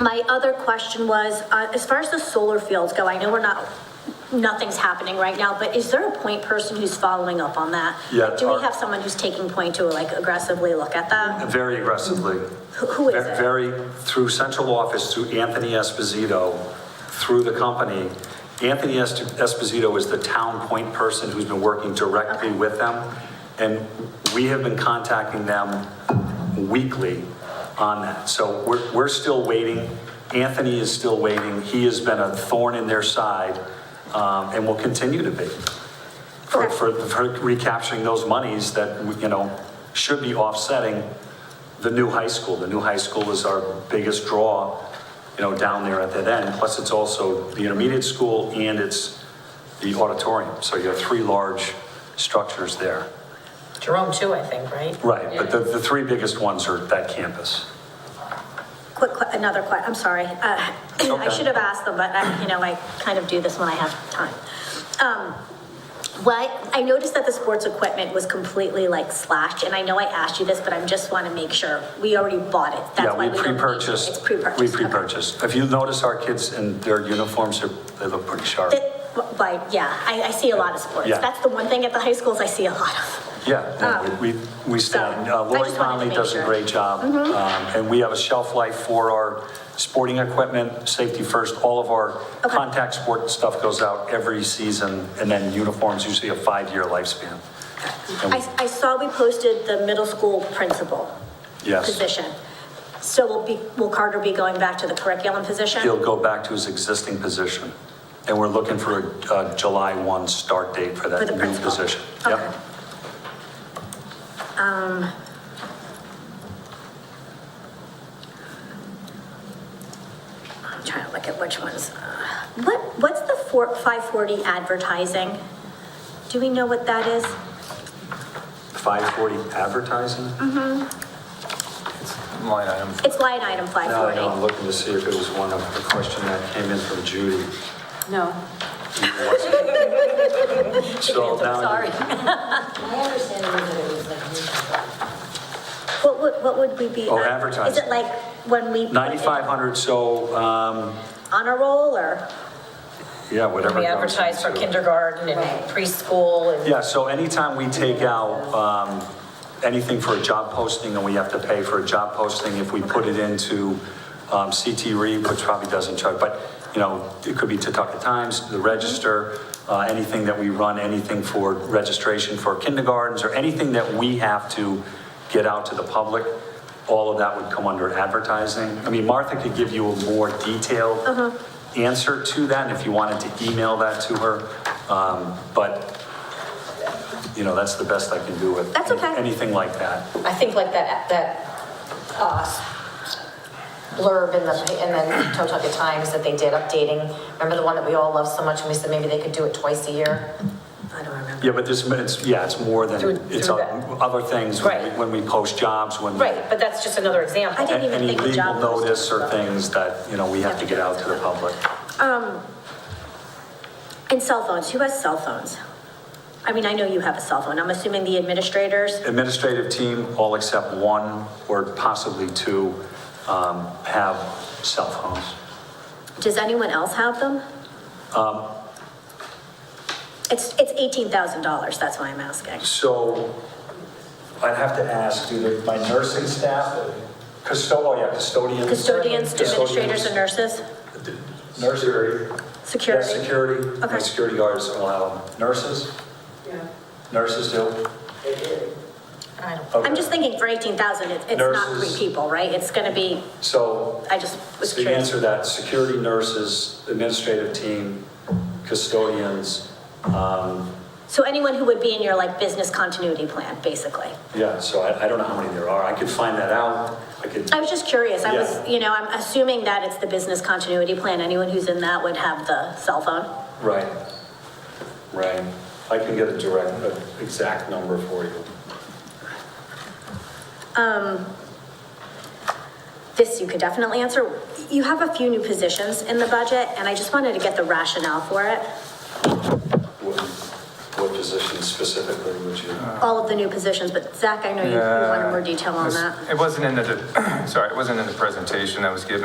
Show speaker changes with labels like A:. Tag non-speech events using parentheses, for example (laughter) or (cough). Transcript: A: My other question was, uh, as far as the solar fields go, I know we're not, nothing's happening right now, but is there a point person who's following up on that?
B: Yeah, uh,
A: Like, Do
B: our-
A: we have someone who's taking point to like aggressively look at that?
B: Very aggressively.
A: Who- who is
B: Ve-
A: it?
B: Very, through central office, through Anthony Esposito, through the company. Anthony Es- Esposito is the town point person who's been working directly with them. And we have been contacting them weekly on that. So we're, we're still waiting. Anthony is still waiting. He has been a thorn in their side um, and will continue to be for,
A: Okay.
B: for for recapturing those monies that, you know, should be offsetting the new high school. The new high school is our biggest draw, you know, down there at that end. Plus, it's also the intermediate school and it's the auditorium. So you have three large structures there.
C: Jerome too, I think, right?
B: Right, but the, the three biggest ones are that campus.
A: Quick, que- another que, I'm sorry. Uh, (clears throat) I
B: Okay.
A: should have asked them, but I, you know, I kind of do this when I have time. Um, What, I noticed that the sports equipment was completely like slashed, and I know I asked you this, but I just want to make sure. We already bought it. That's
B: Yeah,
A: why
B: we
A: don't need it.
B: pre-purchased.
A: It's pre-purchased.
B: We
A: okay.
B: pre-purchased. If you notice our kids in their uniforms, they're- they look pretty sharp.
A: That, but yeah, I, I see a lot of sports.
B: Yeah.
A: That's the one thing at the high schools I see a lot of.
B: Yeah, no, we, we- we stand.
A: so,
B: Uh,
A: I
B: Lori
A: just wanted to
B: Conley
A: make
B: does a
A: sure. Mm-hmm.
B: great job. Um, And we have a shelf life for our sporting equipment, safety first. All of our
A: Okay.
B: contact sport stuff goes out every season. And then uniforms usually a five-year lifespan. And we-
A: I, I saw we posted the middle school principal
B: Yes.
A: position. So will be, will Carter be going back to the curriculum position?
B: He'll go back to his existing position. And we're looking for a uh, July 1 start date for
A: For the
B: that new
A: principal.
B: position.
A: Okay.
B: Yep.
A: I'm trying to look at which ones. Uh, What, what's the four, five forty advertising? Do we know what that is?
B: 540 advertising?
A: Mm-hmm.
D: It's line item.
A: It's line item five
B: No,
A: forty.
B: no, I'm looking to see if it was one of the question that came in from Judy.
C: No.
B: So now you-
C: Sorry.
E: My understanding is that it was like mutual.
A: What would, what would we be?
B: Oh,
A: uh, Is
B: advertising.
A: it like when we? put it
B: 9,500, so, um,
A: On a roll or?
B: yeah, whatever.
C: We
B: goes
C: advertise for
B: into-
C: kindergarten and
E: Right.
C: preschool and
B: Yeah, so anytime we take out um, anything for a job posting, and we have to pay for a job posting, if we put it into um, CT Read, which probably doesn't charge, but, you know, it could be Tucka Times, the Register, uh, anything that we run, anything for registration for kindergartens, or anything that we have to get out to the public, all of that would come under advertising. I mean, Martha could give you a more detailed answer to that, and if you wanted to email that to her, um, but you know, that's the best I can do with.
A: That's okay.
B: Anything like that.
C: I think like that, that, uh, blurb in the, in the Totucket Times that they did updating. Remember the one that we all loved so much and we said maybe they could do it twice a year? I don't remember.
B: Yeah, but this, it's, yeah, it's more than,
C: Through-
B: it's
C: through
B: o-
C: that.
B: other things, when
C: Right.
B: we- when we post jobs, when. we-
C: Right, but that's just another
A: I
C: example.
A: didn't even
B: Any
A: think of job
B: legal notice or
A: postings, though.
B: things that, you know, we have to get out to the public.
A: And cell phones, who has cell phones? I mean, I know you have a cell phone, I'm assuming the administrators?
B: Administrative team, all except one or possibly two, um, have cell phones.
A: Does anyone else have them?
B: Um.
A: It's, it's eighteen thousand dollars, that's why I'm asking.
B: So I'd have to ask, do the- my nursing staff, custo, oh yeah, custodians.
A: Custodians, administrators, and
B: Custodians,
A: nurses,
B: Nursery.
A: security?
B: Yeah, security,
A: Okay.
B: like security guards allow them. Nurses,
E: Yeah.
B: nurses do.
C: I don't-
B: Okay.
A: I'm just thinking for eighteen thousand, it's not
B: Nurses.
A: three people, right? It's gonna be,
B: So
A: I just was
B: to
A: curious.
B: answer that, security nurses, administrative team, custodians,
A: So anyone who would be in your like business continuity plan, basically?
B: yeah, so I, I don't know how many there are. I could find that out. I could,
A: I was just curious, I was,
B: Yeah.
A: you know, I'm assuming that it's the business continuity plan, anyone who's in that would have the cell phone?
B: right, right. I can get a direct, an exact number for you.
A: This you could definitely answer. You have a few new positions in the budget, and I just wanted to get the rationale for it,
B: What, what position specifically would you?
A: all of the new positions, but Zach, I know you you wanted more detail on
D: Uh, This-
A: that.
D: (clears throat) It wasn't in the, sorry, it wasn't in the presentation that was given.